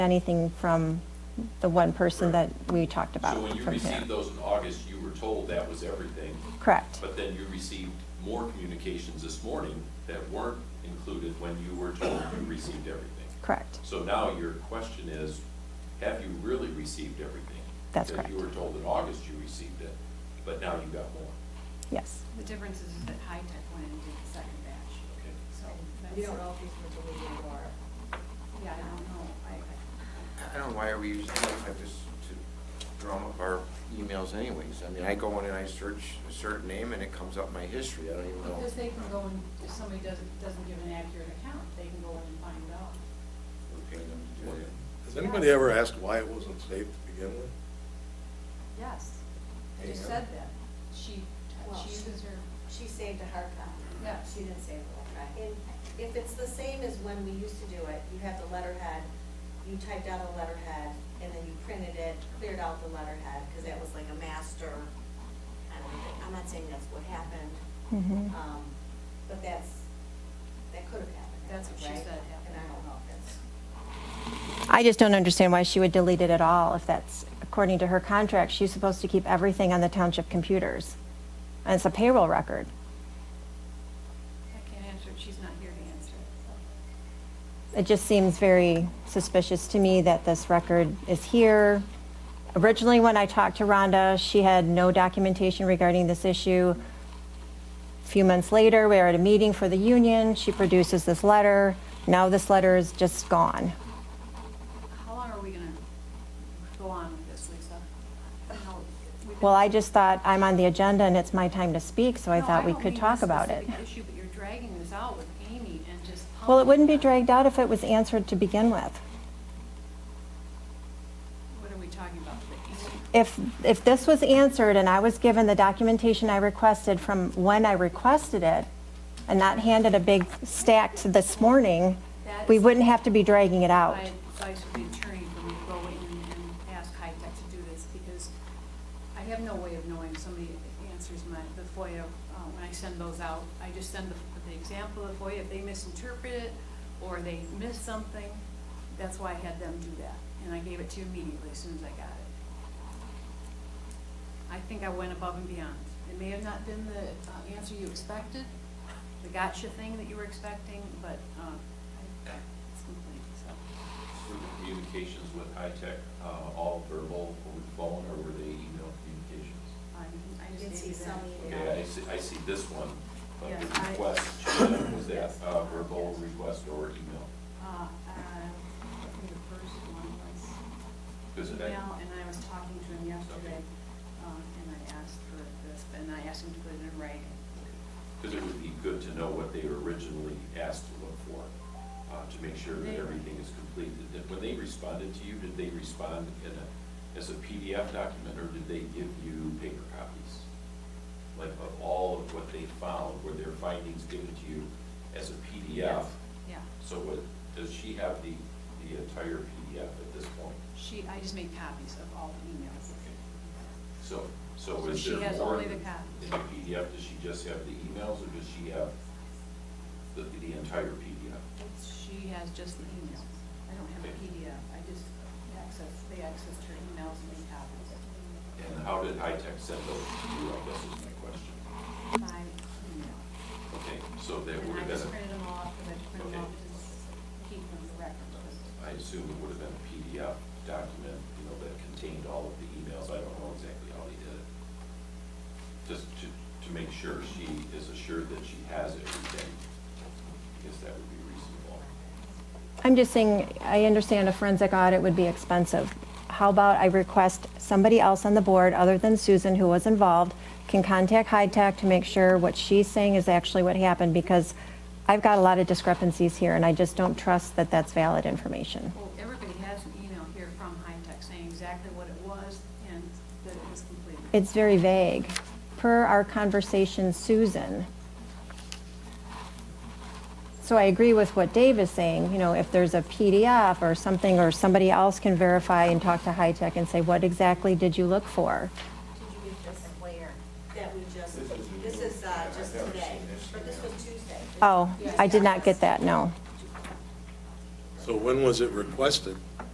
anything from the one person that we talked about So when you from here. received those in August, you were told that was everything, Correct. but then you received more communications this morning that weren't included when you were told you received everything. Correct. So now your question is, have you really received everything? That's Because you correct. were told in August you received it, but now you got more. Yes. The difference is that High Tech went and did the second batch, Okay. so We that's, don't know if these were deleted or, yeah, I don't know, I, I- I don't know why we use things like this to drum up our emails anyways. I mean, I go in and I search a certain name and it comes up my history, I don't even know. because they can go and, if somebody doesn't, doesn't give an accurate account, they can go in and find out. We're paying them to do that. Has anybody ever asked why it wasn't saved to begin with? Yes, I There you just go. said that. She, Well, she she- uses her, she saved a hard copy. Yeah. She didn't save a letter. And if it's the same as when we used to do it, you have the letterhead, you typed out a letterhead, and then you printed it, cleared out the letterhead, because that was like a master kind of thing. I'm not saying that's what happened, Mm-hmm. Mhm. um, but that's, that could have happened. That's what she right? said happened. And I don't know if that's. I just don't understand why she would delete it at all if that's, according to her contract, she's supposed to keep everything on the township computers. And it's a payroll record. I can't answer it, she's not here to answer it, so. It just seems very suspicious to me that this record is here. Originally, when I talked to Rhonda, she had no documentation regarding this issue. A Few months later, we are at a meeting for the union, she produces this letter, now this letter is just gone. How long are we gonna go on with this, Lisa? How- we've been- Well, I just thought I'm on the agenda and it's my time to speak, so I No, thought we don't could mean talk this about it. specific issue, but you're dragging this out with Amy and just. Well, it wouldn't be pumping dragged out if it was answered to begin with. What are we talking about, the E Amy? If, if this was answered and I was given the documentation I requested from when I requested it and not handed a big stack to this morning, That we is- wouldn't have to be dragging it out. My advice would be attorney for me to go in and ask High Tech to do this, because I have no way of knowing if somebody answers my, the FOIA, uh, when I send those out. I just send the, the example of FOIA, if they misinterpret it, or they miss something, that's why I had them do that, and I gave it to you immediately as soon as I got it. I think I went above and beyond. It may have not been the uh, answer you expected, the gotcha thing that you were expecting, but uh, I- it's complete, so. Were the communications with high tech, uh, all verbal over the phone or were they email communications? I I You can just see gave you that. some email. Okay, I see, I see this one, like the Yes, I- request, Gina, was that Yes. uh, verbal request or email? Uh, uh, I think the first one was Because I- email, and I was talking to him yesterday, uh, and I asked for this, and I asked him to put it in writing. Because it would be good to know what they were originally asked to look for, uh, to make sure that everything is complete. Did- When they responded to you, did they respond in a, as a PDF document, or did they give you paper copies? Like of all of what they found, were their findings given to you as a PDF? Yes, Yeah, So what, does she have the, the entire PDF at this point? she, I just made copies of all the emails. So, so So is she there more? has only the copies. In the PDF, does she just have the emails, or does she have the, the entire PDF? She has just the emails. I don't have a PDF, I just access, they accessed her emails and made copies And how did high tech send those to you, I guess is my question. by email. Okay, so that And would I have just been, printed them all off, because I just printed Okay. them off to keep them for record. a- I assume it would have been a PDF document, you know, that contained all of the emails, I don't know exactly how they did it. Just to, to make sure she is assured that she has everything, I guess that would be reasonable. I'm just saying, I understand a forensic audit would be expensive. How about I request somebody else on the board, other than Susan, who was involved, can contact High Tech to make sure what she's saying is actually what happened, because I've got a lot of discrepancies here, and I just don't trust that that's valid information. Well, everybody has an email here from High Tech saying exactly what it was and that it was completed. It's very vague. Per our conversation, Susan. So I agree with what Dave is saying, you know, if there's a PDF or something, or somebody else can verify and talk to High Tech and say, what exactly did you look for? Did you read this where? That we just, this is uh, just I've never today, seen this but this was Tuesday. Oh, I did not get that, no. So when was it requested?